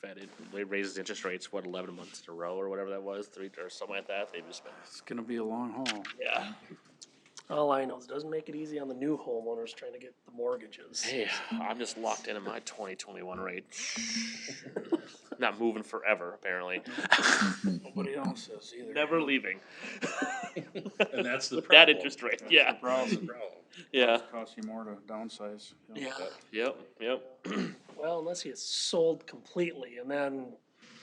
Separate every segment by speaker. Speaker 1: Fed it raises interest rates, what, eleven months in a row or whatever that was, three, or something like that, they've just been,
Speaker 2: It's gonna be a long haul.
Speaker 1: yeah.
Speaker 3: All I know is it doesn't make it easy on the new homeowners trying to get the mortgages.
Speaker 1: Hey, I'm just locked into my twenty twenty-one rate. Not moving forever, apparently,
Speaker 2: Nobody else is either.
Speaker 1: never leaving,
Speaker 4: And that's the problem.
Speaker 1: that interest rate, yeah,
Speaker 2: Problem,
Speaker 1: yeah,
Speaker 2: costs you more to downsize. you know.
Speaker 1: yeah, yep, yep.
Speaker 3: Well, unless he gets sold completely and then.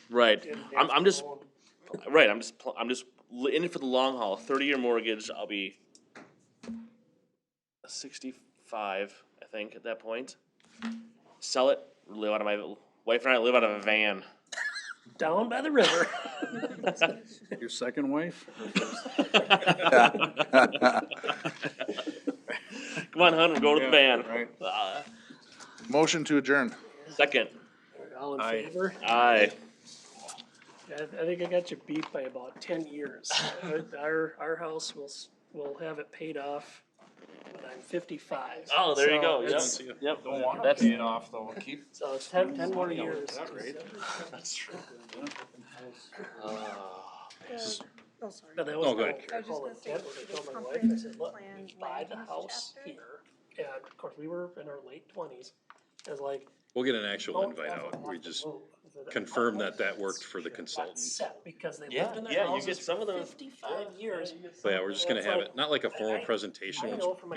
Speaker 1: Right, I'm, I'm just,
Speaker 3: Owned.
Speaker 1: right, I'm just, pl- I'm just l- in it for the long haul, thirty-year mortgage, I'll be sixty-five, I think, at that point. Sell it, live out of my, wife and I live out of a van.
Speaker 3: Down by the river.
Speaker 2: Your second wife?
Speaker 1: Come on, hun, we're going to the van.
Speaker 2: Right.
Speaker 1: Uh,
Speaker 5: Motion to adjourn.
Speaker 1: Second,
Speaker 3: All in favor?
Speaker 1: aye.
Speaker 3: I, I think I got you beat by about ten years. Our, our house will, s- will have it paid off when I'm fifty-five.
Speaker 1: Oh, there you
Speaker 3: So
Speaker 1: go, yep,
Speaker 3: it's-
Speaker 1: yep.
Speaker 2: Don't want to
Speaker 1: That's-
Speaker 2: pay it off though, keep.
Speaker 3: So it's ten, ten more years.
Speaker 2: that rate.
Speaker 1: That's true.
Speaker 6: Oh, sorry.
Speaker 3: But that was
Speaker 4: Oh, go
Speaker 3: my-
Speaker 4: ahead.
Speaker 6: I was just
Speaker 3: my
Speaker 6: gonna say,
Speaker 3: intent when I told my wife, I
Speaker 6: comprehensive
Speaker 3: said, look,
Speaker 6: plan
Speaker 3: we buy the
Speaker 6: land use
Speaker 3: house
Speaker 6: chapter."
Speaker 3: here. And of course, we were in our late twenties. I was like,
Speaker 4: We'll get an actual
Speaker 3: don't
Speaker 4: invite
Speaker 3: ever
Speaker 4: out.
Speaker 3: want
Speaker 4: We
Speaker 3: to
Speaker 4: just,
Speaker 3: move. I said,
Speaker 4: confirm
Speaker 3: "Our
Speaker 4: that that
Speaker 3: house
Speaker 4: worked for the
Speaker 3: here got
Speaker 4: consultant."
Speaker 3: set Because they
Speaker 1: Yeah,
Speaker 3: lived in
Speaker 1: yeah,
Speaker 3: their
Speaker 1: you
Speaker 3: houses
Speaker 1: get some of
Speaker 3: for
Speaker 1: those-
Speaker 3: fifty-five years.
Speaker 4: so yeah, we're just gonna have it, not like a formal
Speaker 3: I- I-
Speaker 4: presentation.
Speaker 3: I
Speaker 4: we'll
Speaker 3: know from my